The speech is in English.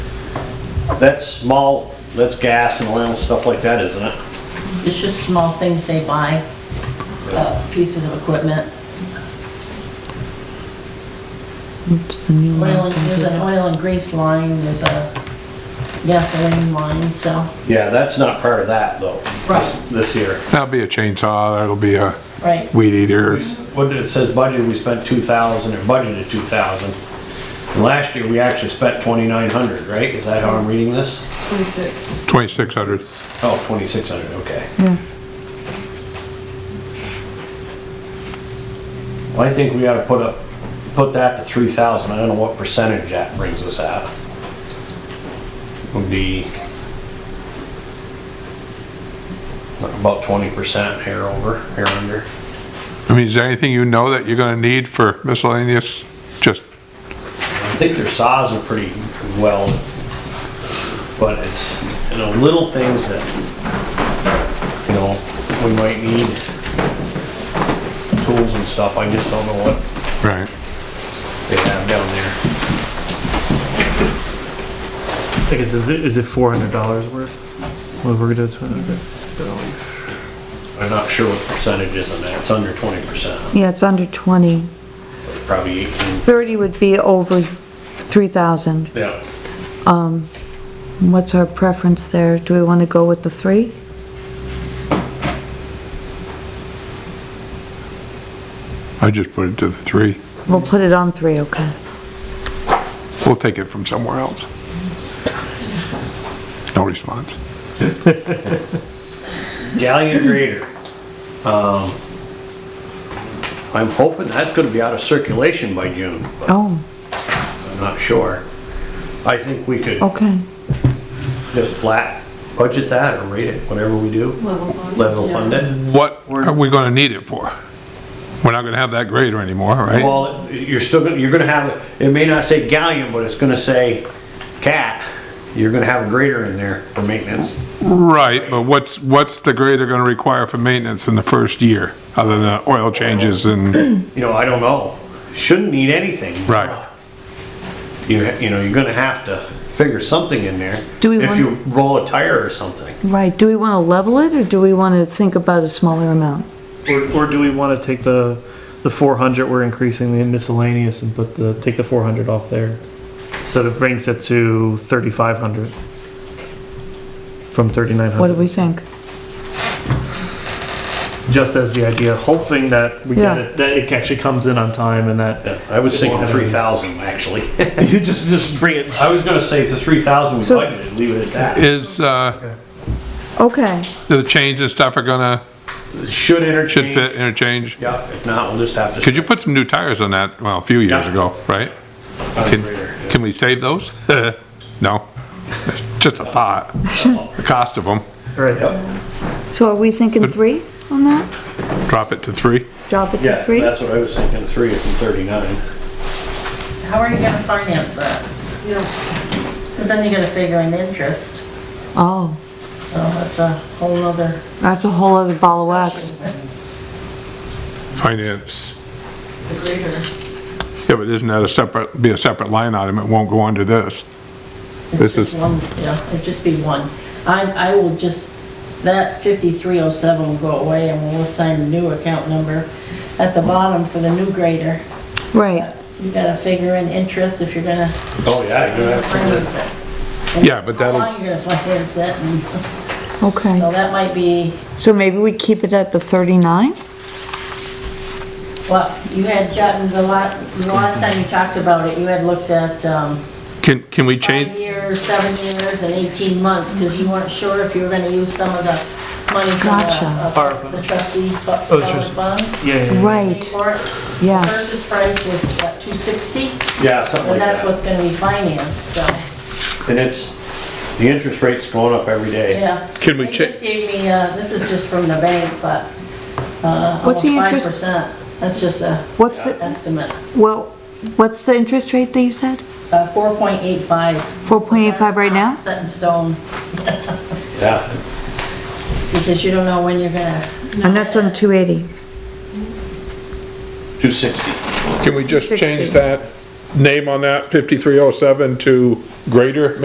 That's small, that's gas and oil and stuff like that, isn't it? It's just small things they buy, uh, pieces of equipment. It's the new Oil, and- one. there's an oil and grease line, there's a gasoline line, so. Yeah, that's not part of that though. this- Right. This year. That'll be a chainsaw, that'll be a Right, weed eater. What did it says budget, we spent two thousand or budgeted two thousand. And last year, we actually spent twenty-nine hundred, right? Is that how I'm reading this? 26. Twenty-six hundred. Oh, twenty-six hundred, okay. Yeah. Well, I think we ought to put up, put that to three thousand. I don't know what percentage that brings us at. Would be about twenty percent here over, here under. I mean, is there anything you know that you're gonna need for miscellaneous? Just, I think their saws are pretty well, but it's, you know, little things that, you know, we might need tools and stuff, I just don't know what right. they have down there. I guess, is it, is it four hundred dollars worth? Well, we're gonna, okay. I'm not sure what percentage is on that, it's under twenty percent, Yeah, it's under 20. probably eighteen, 30 would be over 3,000. yeah. What's our preference there? Do we want to go with the three? I just put it to the three. We'll put it on three, okay. We'll take it from somewhere else. No response. Galleon grader. Um, I'm hoping that's gonna be out of circulation by June, but Oh, I'm not sure. I think we could okay. just flat budget that or rate it, whatever we do. Level fund. Level fund it. What are we gonna need it for? We're not gonna have that grader anymore, right? Well, you're still gonna, you're gonna have, it may not say galleon, but it's gonna say cat. You're gonna have a grader in there for maintenance. Right, but what's, what's the grader gonna require for maintenance in the first year? Other than oil changes and, You know, I don't know. Shouldn't need anything. right. You, ha- you know, you're gonna have to figure something in there. Do we If want- you roll a tire or something. Right, do we want to level it, or do we want to think about a smaller amount? Or, or do we wanna take the, the four hundred, we're increasing the miscellaneous and put the, take the four hundred off there? So that brings it to thirty-five hundred. From thirty-nine What do hundred. we think? Just as the idea, hoping that we get Yeah. it, that it actually comes in on time and Yeah, that, I was thinking three thousand, actually. you just, just bring it. I was gonna say the three thousand we So- budgeted, leave it at that. Is, uh, Okay, the chains and stuff are gonna, Should should interchange. fit interchange? Yeah, if not, we'll just have to. Could you put some new tires on that, well, a few years Yeah. ago, right? On the Can, grader, yeah. can we save those? No, just a thought, the cost of them, Right, so are we thinking three on that? drop it to three. Drop it to Yeah, three? that's what I was thinking, three is from thirty-nine. how are you gonna finance that? Cause then you gotta figure an interest, Oh, so that's a whole nother. that's a whole other ball of wax. Finance, The greater. yeah, but isn't that a separate, be a separate line item, it won't go under this. it's This just is- one. Yeah, it'd just be one. I, I will just, that fifty-three oh seven will go away and we'll assign a new account number at the bottom for the new grader. Right, You gotta figure in interest if you're gonna Oh, yeah, you're gonna have to. finance it. And Yeah, but that'll- How long you're gonna finance it, and so okay. that might be, So maybe we keep it at the 39? well, you had gotten the lot, the last time you talked about it, you had looked at, um, Can, can we five change, years, seven years, and eighteen months, because you weren't sure if you were gonna use some of the money from Gotcha. the, of the trustee fu- Oh, the trustee. fund funds. yeah, yeah, yeah. Right, For it. yes. Purchase price was, what, two sixty, Yeah, something like and that's that. what's gonna be financed, so, And it's, the interest rate's going up every day. yeah. Can we They check- just gave me, uh, this is just from the bank, but, uh, almost What's the five interest- percent. That's just a What's, the estimate, well, what's the interest rate that you said? uh, four point eight five. 4.85 right now? Set in stone, Yeah, because you don't know when you're gonna. And that's on 280. two sixty. can we just 60. change that name on that, 5307 to greater